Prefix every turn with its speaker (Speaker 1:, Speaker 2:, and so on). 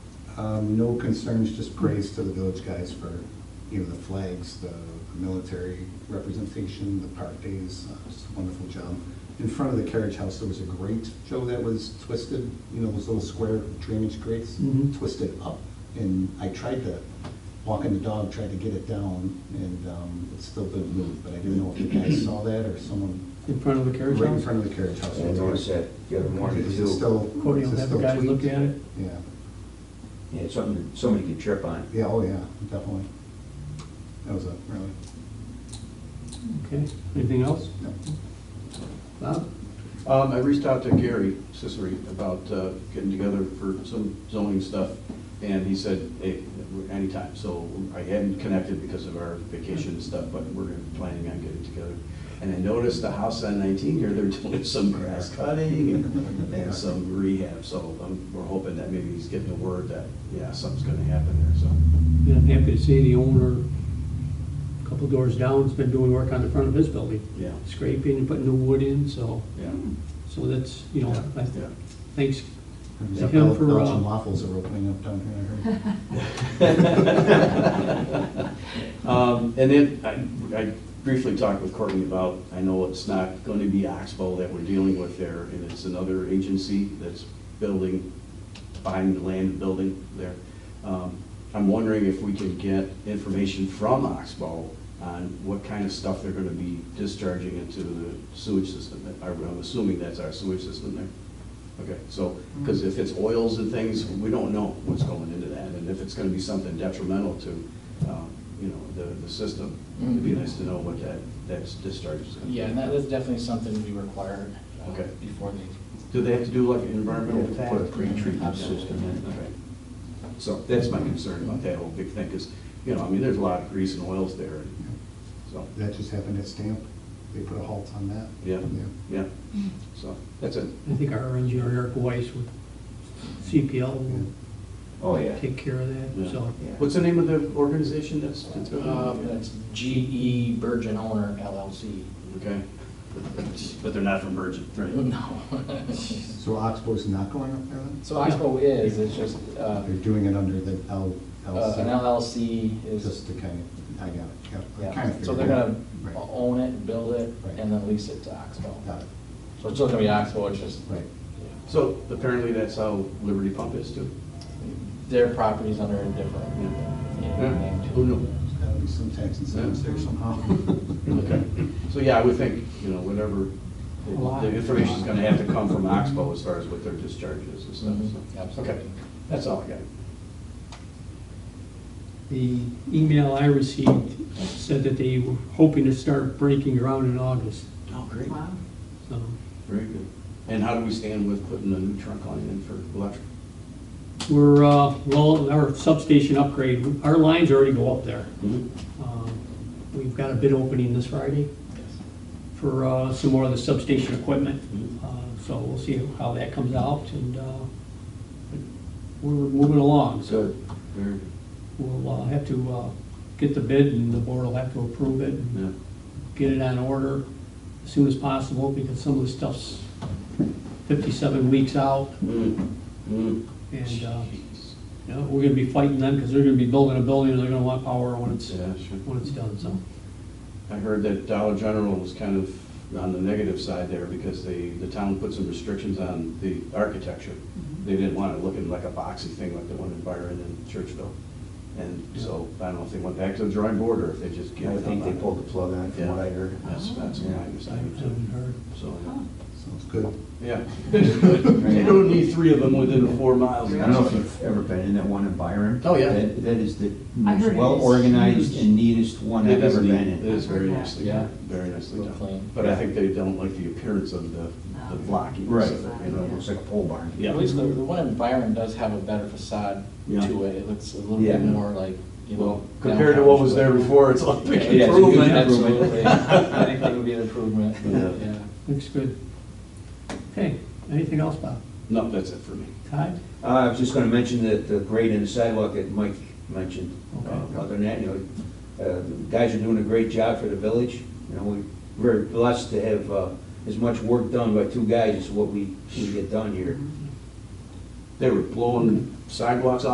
Speaker 1: Um, No concerns, just praise to the village guys for, you know, the flags, the military representation, the park days, uh, just a wonderful job. In front of the carriage house, there was a grate, Joe, that was twisted, you know, those little square drainage grates,
Speaker 2: Mhm.
Speaker 1: twisted up. And I tried to, walking the dog, tried to get it down, and um, it still didn't move. But I didn't know if you guys saw that or someone
Speaker 2: in front of the carriage
Speaker 1: right in
Speaker 2: house?
Speaker 1: front of the carriage house.
Speaker 3: I noticed that the other morning
Speaker 1: Is it
Speaker 3: too.
Speaker 1: still?
Speaker 2: Cody
Speaker 1: is
Speaker 2: will
Speaker 1: it
Speaker 2: have the
Speaker 1: still
Speaker 2: guys look
Speaker 1: tweaked?
Speaker 2: at it.
Speaker 1: Yeah,
Speaker 3: Yeah, it's something that somebody could trip on.
Speaker 1: yeah, oh yeah, definitely. That was a really,
Speaker 2: Okay, anything else?
Speaker 1: no.
Speaker 2: Bob?
Speaker 4: Um, I reached out to Gary Cicery about uh, getting together for some zoning stuff, and he said, hey, anytime, so I hadn't connected because of our vacation and stuff, but we're planning on getting together. And I noticed the house on nineteen here, they're doing some grass cutting and- and some rehab, so um, we're hoping that maybe he's getting the word that, yeah, something's gonna happen there, so.
Speaker 2: Yeah, I'm happy to see the owner, a couple doors down, has been doing work on the front of his building,
Speaker 4: Yeah,
Speaker 2: scraping and putting new wood in, so,
Speaker 4: yeah,
Speaker 2: so that's, you know, I
Speaker 4: yeah.
Speaker 2: thanks.
Speaker 1: There's
Speaker 2: They
Speaker 1: a
Speaker 2: come
Speaker 1: Bel-
Speaker 2: for, uh,
Speaker 1: Belgian waffles are opening up down here, I heard.
Speaker 4: Um, And then I- I briefly talked with Courtney about, I know it's not going to be Oxbow that we're dealing with there, and it's another agency that's building, buying the land and building there. Um, I'm wondering if we can get information from Oxbow on what kind of stuff they're going to be discharging into the sewage system. I- I'm assuming that's our sewage system there. Okay, so, because if it's oils and things, we don't know what's going into that, and if it's gonna be something detrimental to, um, you know, the, the system, it'd be nice to know what that, that discharge is gonna be.
Speaker 5: Mm-hmm. Yeah, and that is definitely something we require uh,
Speaker 4: Okay.
Speaker 5: before they,
Speaker 4: Do they have to do like an environmental
Speaker 3: Yeah,
Speaker 4: tag?
Speaker 3: put a pre-treatment system in.
Speaker 4: Okay. So that's my concern about that whole big thing, because, you know, I mean, there's a lot of grease and oils there, and so,
Speaker 1: That just happened at Stamp, they put a halt on that.
Speaker 4: Yeah. yeah, so, that's it.
Speaker 5: Mm-hmm.
Speaker 2: I think our engineer Eric Weiss with CPL will
Speaker 3: Oh, yeah.
Speaker 2: take care of that,
Speaker 4: Yeah.
Speaker 2: so.
Speaker 3: Yeah.
Speaker 4: What's the name of the organization that's, that's going
Speaker 5: uh,
Speaker 4: on?
Speaker 5: that's GE Virgin Owner LLC.
Speaker 4: Okay. But they're not from Virgin, right?
Speaker 5: No.
Speaker 1: So Oxbow's not going up there then?
Speaker 5: So Oxbow is, it's just, uh,
Speaker 1: They're doing it under the L,
Speaker 5: uh, an
Speaker 1: LC,
Speaker 5: LLC is,
Speaker 1: just to kind of, I got it, yeah, I kind
Speaker 5: yeah,
Speaker 1: of figured.
Speaker 5: so they're gonna
Speaker 1: Right.
Speaker 5: own it, build it,
Speaker 1: Right.
Speaker 5: and then lease it to Oxbow.
Speaker 1: Got it,
Speaker 5: So it's still gonna be Oxbow, it's just,
Speaker 1: right.
Speaker 4: So apparently that's how Liberty Pump is too.
Speaker 5: their property's under a different, yeah, name to it.
Speaker 4: Who knew?
Speaker 1: There's gotta be some tax incentives there somehow.
Speaker 4: Okay. So yeah, I would think, you know, whatever,
Speaker 2: A lot.
Speaker 4: the information's gonna have to come from Oxbow as far as what their discharge is and stuff,
Speaker 5: Mhm,
Speaker 4: so.
Speaker 5: absolutely.
Speaker 4: Okay, that's all I got.
Speaker 2: The email I received said that they were hoping to start breaking ground in August,
Speaker 4: Oh, great.
Speaker 6: Wow.
Speaker 2: so.
Speaker 4: Very good. And how do we stand with putting a new trunk line in for electric?
Speaker 2: We're, uh, well, our substation upgrade, our lines already go up there.
Speaker 4: Mm-hmm.
Speaker 2: Um, We've got a bid opening this Friday for uh, some more of the substation equipment.
Speaker 4: Mhm.
Speaker 2: Uh, So we'll see how that comes out and uh, but we're moving along. So
Speaker 4: Good, very good.
Speaker 2: we'll uh, have to uh, get the bid and the board will have to approve it and
Speaker 4: Yeah,
Speaker 2: get it on order as soon as possible because some of the stuff's 57 weeks out.
Speaker 4: Mm, mm.
Speaker 2: And uh,
Speaker 4: Jeez.
Speaker 2: you know, we're going to be fighting them because they're going to be building a building and they're going to want power when it's,
Speaker 4: Yeah, sure.
Speaker 2: when it's done, so.
Speaker 4: I heard that Dollar General was kind of on the negative side there because they, the town put some restrictions on the architecture. They didn't want it looking like a boxy thing like the one in Byron and Churchville. And so I don't know if they went back to the drawing board or if they just gave
Speaker 3: I
Speaker 4: it up.
Speaker 3: think they
Speaker 4: on it.
Speaker 3: pulled the plug on it from what I heard.
Speaker 4: That's, that's what I
Speaker 2: I haven't
Speaker 4: understand
Speaker 2: heard.
Speaker 4: too. So,
Speaker 6: Oh,
Speaker 1: Sounds good.
Speaker 4: yeah. You don't need three of them within four miles.
Speaker 3: I don't know if you've ever been in that one in Byron.
Speaker 4: Oh, yeah.
Speaker 3: That that is the
Speaker 6: I heard it
Speaker 3: most
Speaker 6: is
Speaker 3: well-organized
Speaker 6: huge.
Speaker 3: and neatest one I've
Speaker 4: It is
Speaker 3: ever
Speaker 4: neat.
Speaker 3: been
Speaker 4: It
Speaker 3: in.
Speaker 4: is very nicely,
Speaker 5: Yeah.
Speaker 4: done. very nicely
Speaker 5: Real
Speaker 4: done.
Speaker 5: clean.
Speaker 4: But I think they don't like the appearance of the, the blocking.
Speaker 3: Right,
Speaker 4: so,
Speaker 3: you know, it looks like a pole barn.
Speaker 4: Yeah.
Speaker 5: At least the, the one in Byron does have a better facade
Speaker 4: Yeah.
Speaker 5: to it, it looks a little
Speaker 3: Yeah.
Speaker 5: bit more like, you know.
Speaker 4: Well, compared to what was there before, it's like
Speaker 5: Yeah,
Speaker 4: big
Speaker 3: it's a huge
Speaker 4: improvement.
Speaker 5: Absolutely, I think that would be an improvement,
Speaker 4: Yeah.
Speaker 5: yeah.
Speaker 2: Looks good. Okay, anything else, Bob?
Speaker 4: No, that's it for me.
Speaker 2: Ty?
Speaker 3: Uh, I was just gonna mention that the grade in the sidewalk that Mike mentioned. Uh,
Speaker 2: Okay.
Speaker 3: Other than that, you know, uh, the guys are doing a great job for the village. You know, we're very blessed to have uh, as much work done by two guys as what we, we get done here.
Speaker 4: They were blowing sidewalks